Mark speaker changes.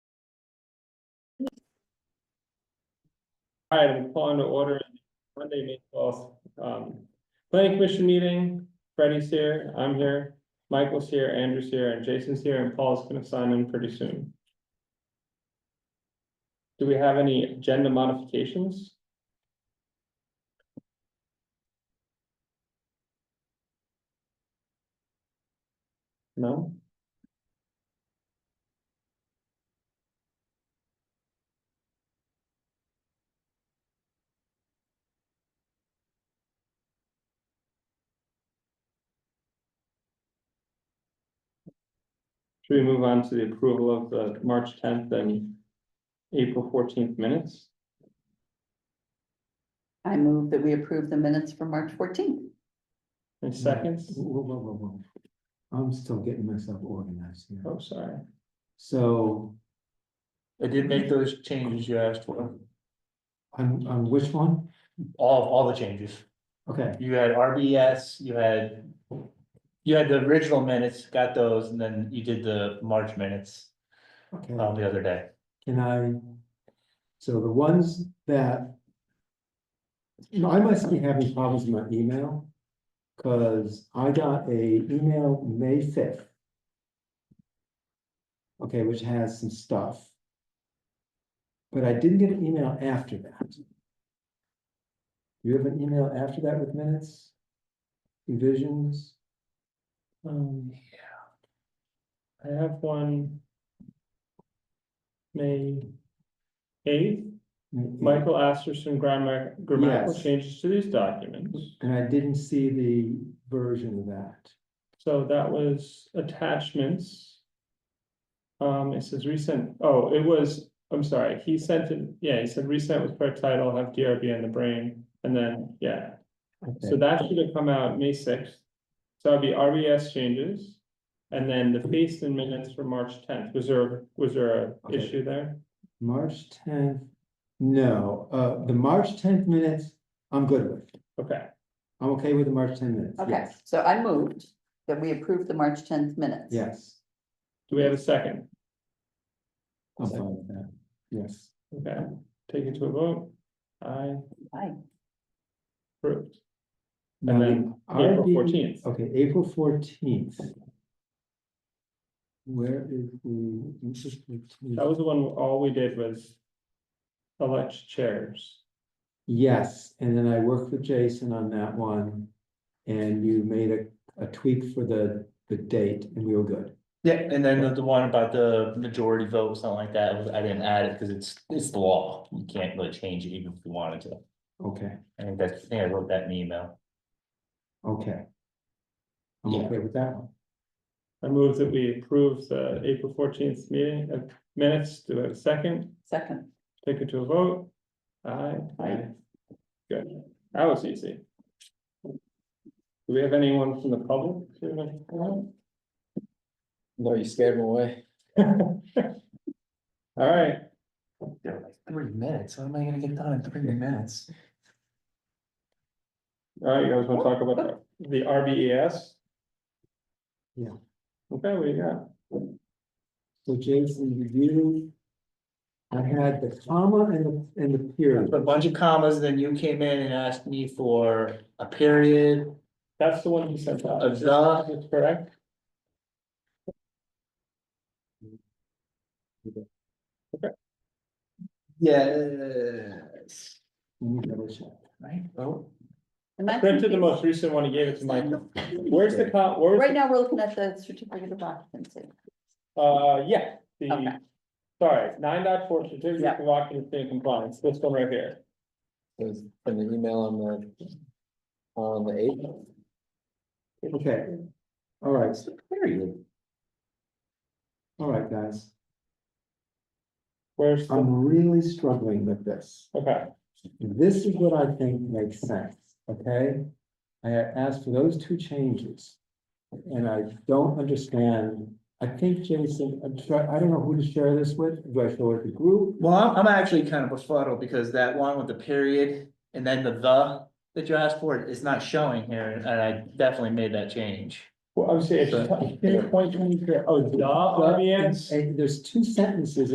Speaker 1: All right, I'm calling to order Monday, May twelfth, um, planning commission meeting. Freddie's here, I'm here, Michael's here, Andrew's here, and Jason's here, and Paul's gonna sign in pretty soon. Do we have any agenda modifications? No? Should we move on to the approval of the March tenth and April fourteenth minutes?
Speaker 2: I move that we approve the minutes for March fourteenth.
Speaker 1: In seconds?
Speaker 3: Whoa, whoa, whoa, whoa. I'm still getting myself organized here.
Speaker 1: Oh, sorry.
Speaker 3: So
Speaker 4: I did make those changes you asked for,
Speaker 3: on, on which one?
Speaker 4: all, all the changes.
Speaker 3: Okay,
Speaker 4: You had RBS, you had. You had the original minutes, got those, and then you did the March minutes,
Speaker 3: okay.
Speaker 4: um, the other day.
Speaker 3: Can I? So the ones that. You know, I must be having problems with my email. Cause I got a email May fifth. Okay, which has some stuff. But I didn't get an email after that. You have an email after that with minutes? Revisions?
Speaker 1: Um, I have one. May eighth, Michael Asterson grammar, grammatical
Speaker 3: Yes.
Speaker 1: changes to these documents.
Speaker 3: And I didn't see the version of that.
Speaker 1: So that was attachments. Um, it says recent, oh, it was, I'm sorry, he sent it, yeah, he said recent was per title, have DRB in the brain, and then, yeah. So
Speaker 3: Okay,
Speaker 1: that should have come out May sixth. So that'd be RBS changes. And then the feast and minutes for March tenth. Was there, was there a
Speaker 3: Okay.
Speaker 1: issue there?
Speaker 3: March tenth, no, uh, the March tenth minutes, I'm good with.
Speaker 1: Okay,
Speaker 3: I'm okay with the March ten minutes.
Speaker 2: Okay,
Speaker 3: yes,
Speaker 2: so I moved that we approve the March tenth minutes.
Speaker 3: Yes,
Speaker 1: do we have a second?
Speaker 3: I'm fine with that, yes.
Speaker 1: Okay, take it to a vote. I
Speaker 2: Aye.
Speaker 1: approved.
Speaker 3: Now, the
Speaker 1: then April
Speaker 3: RB
Speaker 1: fourteenth.
Speaker 3: Okay, April fourteenth. Where is the? this is
Speaker 1: That
Speaker 3: 14th.
Speaker 1: was the one, where all we did was elect chairs.
Speaker 3: Yes, and then I worked with Jason on that one. And you made a, a tweak for the, the date and we were good.
Speaker 4: Yeah, and then the- the one about the majority vote, something like that, was- I didn't add it, cause it's, it's the law, you can't really change it even if you wanted to.
Speaker 3: Okay,
Speaker 4: I think that's, I think I wrote that in the email.
Speaker 3: okay. I'm
Speaker 4: Yeah.
Speaker 3: okay with that one.
Speaker 1: I move that we approve the April fourteenth meeting of minutes. Do I have a second?
Speaker 2: Second,
Speaker 1: Take it to a vote. Aye.
Speaker 2: Aye.
Speaker 1: Good, that was easy. Do we have anyone from the public? who would like to comment?
Speaker 5: No, you scared me away.
Speaker 1: All right,
Speaker 4: They're like three minutes, how am I gonna get done in three minutes?
Speaker 1: all right, you guys wanna talk about the- the RBES?
Speaker 3: Yeah.
Speaker 1: Okay, what do you got?
Speaker 3: So Jason, review. I had the comma and the, and the period.
Speaker 4: A bunch of commas, then you came in and asked me for a period,
Speaker 1: That's the one you sent out.
Speaker 4: Of the-
Speaker 1: That's Correct?
Speaker 4: Yes.
Speaker 3: Let me double check.
Speaker 4: Right, oh,
Speaker 2: am I
Speaker 1: Printed the
Speaker 2: confused?
Speaker 1: most recent one you gave it to Michael. Where's the, co-
Speaker 2: Right
Speaker 1: where's,
Speaker 2: now, we're looking at the certificate of occupancy.
Speaker 1: uh, yeah,
Speaker 2: Okay.
Speaker 1: the, sorry, nine dot four, certificate
Speaker 2: Yeah.
Speaker 1: of occupancy and compliance, this one right here.
Speaker 5: It was in the email on the, on the eighth.
Speaker 3: Okay. All right,
Speaker 4: it's a period.
Speaker 3: all right, guys.
Speaker 1: Where's, the-
Speaker 3: I'm really struggling with this.
Speaker 1: okay,
Speaker 3: This is what I think makes sense, okay? I had asked for those two changes. And I don't understand, I think Jason, I'm trying, I don't know who to share this with, do I share with the group?
Speaker 4: Well, I'm, I'm actually kind of befuddled because that one with the period and then the the that you asked for is not showing here, and I definitely made that change.
Speaker 1: well, I was saying, it's
Speaker 4: So-
Speaker 1: twenty twenty-three, oh, the
Speaker 3: But
Speaker 1: RBS?
Speaker 3: it's- eh, There's two sentences